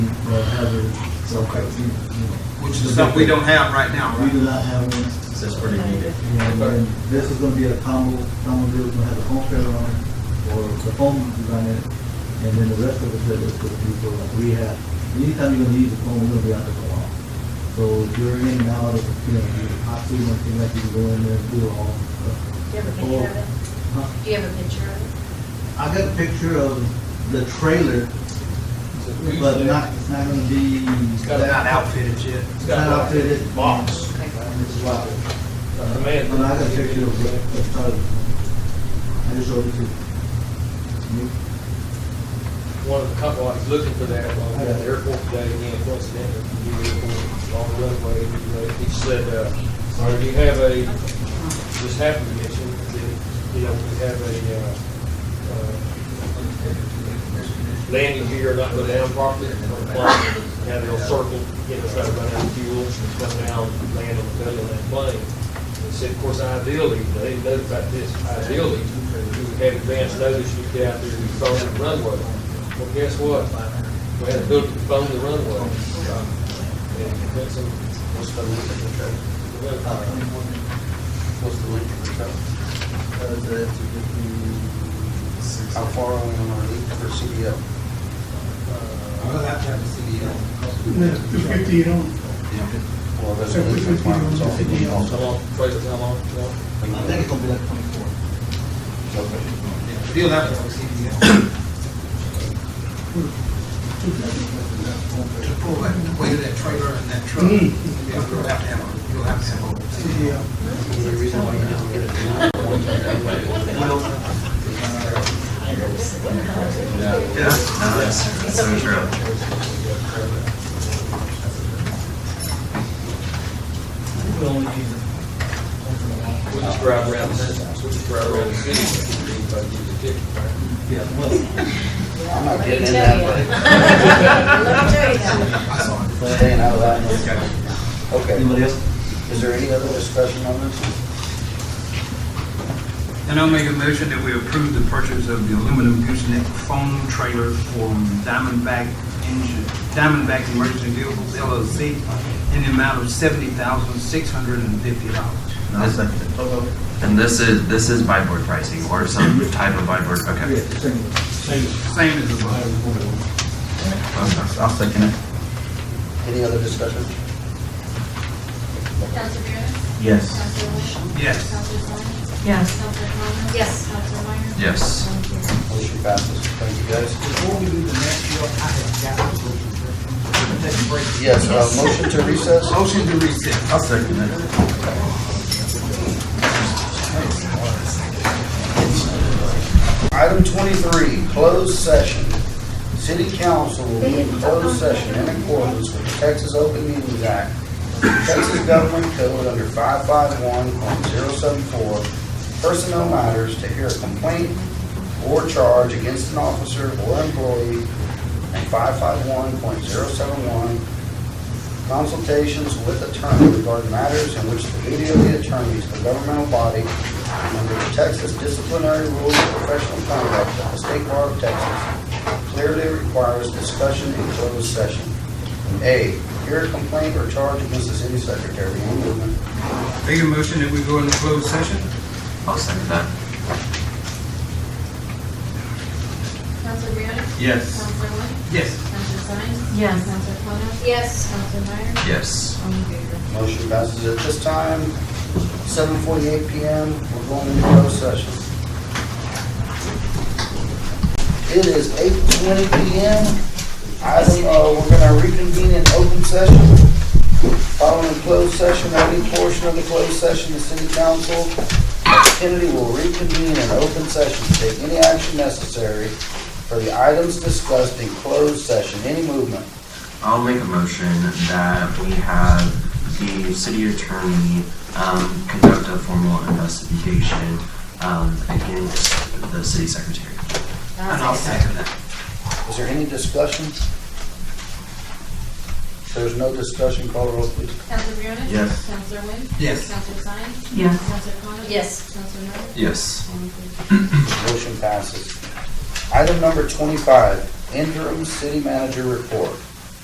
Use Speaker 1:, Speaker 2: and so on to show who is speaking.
Speaker 1: that hazard, so criteria, you know,
Speaker 2: which is something we don't have right now,
Speaker 1: we
Speaker 2: right?
Speaker 1: do not have one.
Speaker 3: That's pretty needed.
Speaker 1: You know, and then this is gonna be a combo, combo deal, it's gonna have a foam trailer on it, or the foam design in it, and then the rest of the trailer is gonna be for like rehab. Anytime you're gonna use the foam, you're gonna be out there for a while. So if you're in and out of, you know, the hot seat, one thing like you can go in there and do all that stuff.
Speaker 4: Do you have a picture of it?
Speaker 1: Huh?
Speaker 4: Do you have a picture of it?
Speaker 1: I got a picture of the trailer, but not, it's not gonna be. It's
Speaker 2: They're not outfitted yet.
Speaker 1: It's not outfitted.
Speaker 5: Box.
Speaker 4: Okay.
Speaker 1: And it's locked.
Speaker 5: The man-
Speaker 1: But I got a picture of the, of the trailer. I just showed it to you.
Speaker 5: One of the couple, I was looking for that while I was at the airport today, again, coincidentally, new airport, on the runway, you know, he said, uh, or do you have a, just happened to mention, that, you know, we have a, uh, uh, landing gear not go down properly, on the plane, have it all circled, you know, try to run out of fuel, and come down, land on the belly of that plane. He said, of course, ideally, they didn't know about this, ideally, you would have advance notice, you get out there, you phone the runway. Well, guess what? We had to build, phone the runway. And that's some, what's the length of the trip? What's the length of the trip?
Speaker 6: How far are we on our lead for CDL? I'm gonna have to have a CDL.
Speaker 7: Two fifty, you don't,
Speaker 6: Well, that's
Speaker 7: So
Speaker 6: a
Speaker 7: we
Speaker 6: lead
Speaker 7: could do
Speaker 6: requirement, so
Speaker 7: a CDL.
Speaker 5: How long, Fraser, how long? How long?
Speaker 1: I think it's gonna be like twenty-four.
Speaker 2: Still have to have a CDL.
Speaker 3: Hmm.
Speaker 2: To pull that weight of that trailer and that
Speaker 3: Hmm.
Speaker 2: truck, you'll have to have, a- you'll have to have a CDL.
Speaker 6: The reason why you don't get it
Speaker 2: Yeah, no, that's-
Speaker 3: So true.
Speaker 1: We only use it.
Speaker 5: We just drive around, the- we just drive around the city, and see if I can get a ticket, right?
Speaker 1: Yeah, well.
Speaker 6: I'm not
Speaker 4: Let me
Speaker 6: getting in
Speaker 4: tell
Speaker 6: that,
Speaker 4: you.
Speaker 6: but
Speaker 4: Let me tell you now.
Speaker 2: I saw it.
Speaker 6: I'm staying out of that. Okay,
Speaker 1: Anybody else?
Speaker 6: is there any other discussion on this?
Speaker 2: And I'll make a motion that we approve the purchase of the aluminum gooseneck foam trailer from Diamondback Engine, Diamondback Emergency Vehicles LLC in the amount of seventy thousand, six hundred and fifty dollars.
Speaker 3: And this is, this is buy board pricing or some type of buy board, okay.
Speaker 1: Yeah, same.
Speaker 2: Same as the one.
Speaker 3: I'll second it.
Speaker 6: Any other discussion?
Speaker 8: Counselor Barron?
Speaker 3: Yes.
Speaker 8: Counselor Lynch?
Speaker 2: Yes.
Speaker 8: Counselor Sines?
Speaker 9: Yes.
Speaker 8: Counselor Thomas?
Speaker 4: Yes.
Speaker 8: Counselor Meyer?
Speaker 3: Yes.
Speaker 8: Motion carries.
Speaker 6: Motion passes. Thank you, guys.
Speaker 2: Before we do the next deal, I have got to go to the next break.
Speaker 6: Yes, uh, motion to recess?
Speaker 2: Motion to recess.
Speaker 3: I'll second it.
Speaker 6: Item twenty-three, closed session. City council will meet in closed session in accordance with the Texas Open Meetings Act, Texas Government Code under five-five-one point zero-seven-four, personnel matters to hear a complaint or charge against an officer or employee, and five-five-one point zero-seven-one, consultations with attorney regarding matters in which the duty of the attorney is the governmental body under the Texas disciplinary rules of professional conduct of the State Bar of Texas clearly requires discussion in closed session. A, hear a complaint or charge against the city secretary in movement.
Speaker 2: Make a motion that we go into closed session?
Speaker 3: I'll second that.
Speaker 8: Counselor Barron?
Speaker 3: Yes.
Speaker 8: Counselor Lynch?
Speaker 2: Yes.
Speaker 8: Counselor Sines?
Speaker 9: Yes.
Speaker 8: Counselor Thomas?
Speaker 4: Yes.
Speaker 8: Counselor Meyer?
Speaker 3: Yes.
Speaker 8: Motion carries.
Speaker 6: Motion passes at this time, 7:48 PM, we're going into closed session. It is 8:20 PM. Item, uh, we're gonna reconvene in open session. Following closed session, any portion of the closed session, the city council of Kennedy will reconvene in open session to take any action necessary for the items discussed in closed session. Any movement?
Speaker 3: I'll make a motion that we have the city attorney um, conduct a formal investigation um, against the city secretary.
Speaker 2: And I'll second that.
Speaker 6: Is there any discussion? If there's no discussion, call the roll, please.
Speaker 8: Counselor Barron?
Speaker 3: Yes.
Speaker 8: Counselor Lynch?
Speaker 2: Yes.
Speaker 8: Counselor Sines?
Speaker 9: Yes.
Speaker 8: Counselor Thomas?
Speaker 4: Yes.
Speaker 8: Counselor Meyer?
Speaker 3: Yes.
Speaker 8: Motion carries.
Speaker 6: Motion passes. Item number 25, interim city manager report.